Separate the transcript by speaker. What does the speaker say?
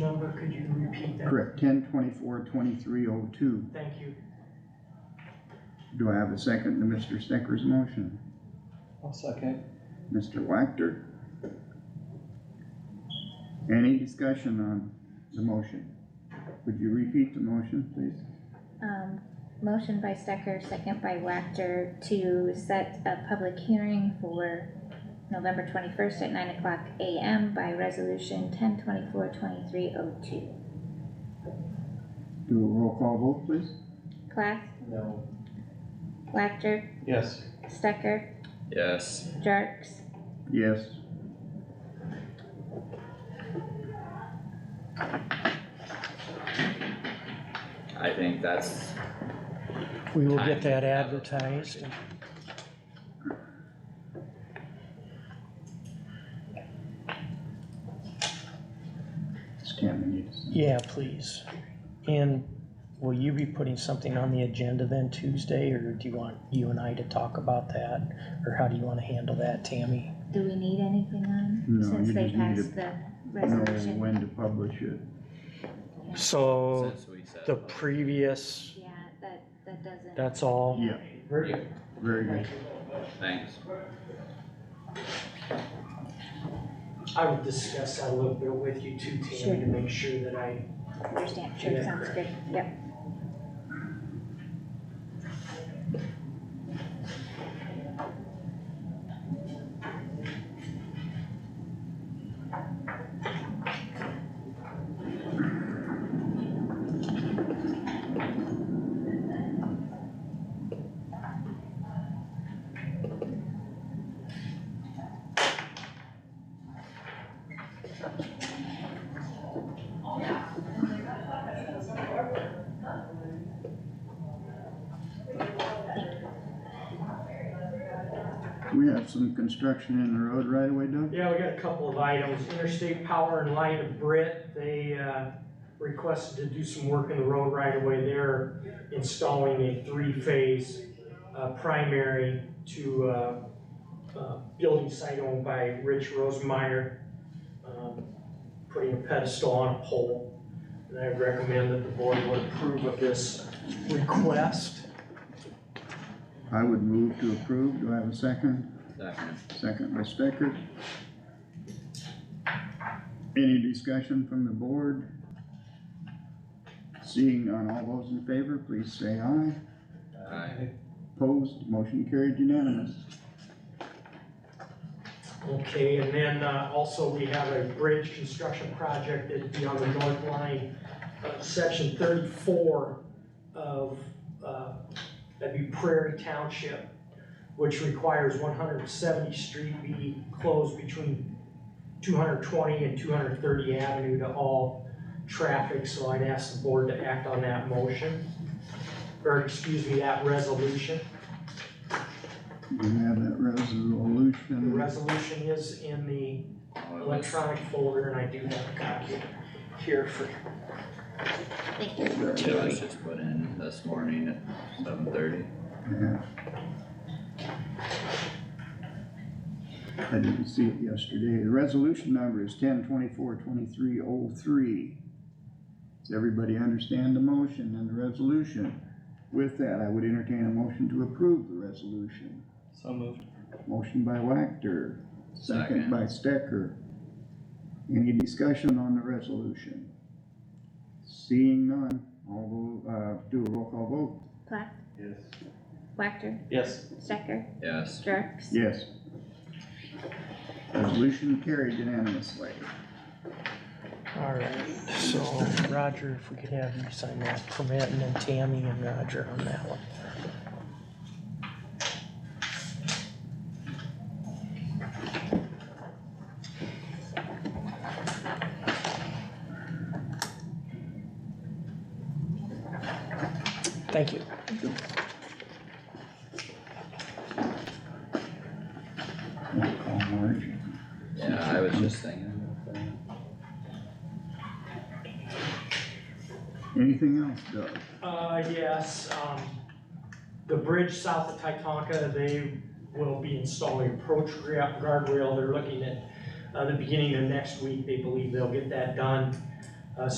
Speaker 1: number, could you repeat that?
Speaker 2: Correct, ten twenty-four twenty-three oh two.
Speaker 1: Thank you.
Speaker 2: Do I have a second to Mr. Stecker's motion?
Speaker 3: I'll second.
Speaker 2: Mr. Wactor? Any discussion on the motion? Would you repeat the motion, please?
Speaker 4: Um, motion by Stecker, second by Wactor to set a public hearing for November twenty-first at nine o'clock AM by resolution ten twenty-four twenty-three oh two.
Speaker 2: Do a roll call vote, please?
Speaker 4: Plath,
Speaker 3: No.
Speaker 4: Wactor,
Speaker 3: Yes.
Speaker 4: Stecker,
Speaker 5: Yes,
Speaker 4: Jarks,
Speaker 2: Yes.
Speaker 5: I think that's,
Speaker 6: We will
Speaker 5: Time
Speaker 6: get
Speaker 5: to
Speaker 6: that
Speaker 5: have a
Speaker 6: advertised. and-
Speaker 2: Stan, we need to send-
Speaker 6: Yeah, please. And will you be putting something on the agenda then Tuesday, or do you want you and I to talk about that? Or how do you wanna handle that, Tammy?
Speaker 4: do we need anything on,
Speaker 2: No, you
Speaker 4: since they
Speaker 2: just need
Speaker 4: passed the
Speaker 2: Know
Speaker 4: resolution?
Speaker 2: when to publish it.
Speaker 6: So,
Speaker 5: since we said.
Speaker 6: the previous,
Speaker 4: Yeah, that, that doesn't.
Speaker 6: that's all?
Speaker 2: Yeah,
Speaker 3: Very good.
Speaker 2: very good.
Speaker 5: Thanks.
Speaker 1: I would discuss that a little bit with you too, Tammy, to
Speaker 4: Sure.
Speaker 1: make sure that I
Speaker 4: Understand, sure,
Speaker 1: Yeah.
Speaker 4: sounds good, yep.
Speaker 2: We have some construction in the road right away, Doug?
Speaker 1: Yeah, we got a couple of items. Interstate Power and Light of Britt, they, uh, requested to do some work in the road right away. They're installing a three-phase, uh, primary to, uh, uh, building site owned by Rich Rosemeyer. um, Putting a pedestal on a pole. And I recommend that the board would approve of this request.
Speaker 2: I would move to approve. Do I have a second?
Speaker 5: Second.
Speaker 2: Second by Stecker. Any discussion from the board? Seeing none, all those in favor, please say aye.
Speaker 5: Aye.
Speaker 2: Opposed, motion carried unanimous.
Speaker 1: Okay, and then uh, also we have a bridge construction project that'd be on the north line, uh, section thirty-four of, uh, that'd be Prairie Township, which requires one hundred and seventy street be closed between two hundred twenty and two hundred thirty avenue to all traffic, so I'd ask the board to act on that motion, or excuse me, that resolution.
Speaker 2: We have that
Speaker 1: The
Speaker 2: resolution.
Speaker 1: resolution is in the
Speaker 5: Well, it was-
Speaker 1: electronic folder, and I do have a copy here for,
Speaker 4: Thank you.
Speaker 5: It was just put in this morning at seven thirty.
Speaker 2: Yeah. I didn't see it yesterday. The resolution number is ten twenty-four twenty-three oh three. Does everybody understand the motion and the resolution? With that, I would entertain a motion to approve the resolution.
Speaker 3: So moved.
Speaker 2: Motion by Wactor, second
Speaker 5: Second.
Speaker 2: by Stecker. Any discussion on the resolution? Seeing none, all, tho- uh, do a roll call vote.
Speaker 4: Plath,
Speaker 3: Yes.
Speaker 4: Wactor,
Speaker 3: Yes.
Speaker 4: Stecker,
Speaker 5: Yes,
Speaker 4: Jarks.
Speaker 2: Yes. Resolution carried unanimously.
Speaker 6: Alright, so Roger, if we could have you sign that permit, and then Tammy and Roger on that one. Thank you.
Speaker 2: Roll call, Marge.
Speaker 5: yeah, I was just thinking about that.
Speaker 2: Anything else, Doug?
Speaker 1: uh, yes, um, the bridge south of Titanca, they will be installing approach gra- guardrail, they're looking at, uh, the beginning of next week, they believe they'll get that done.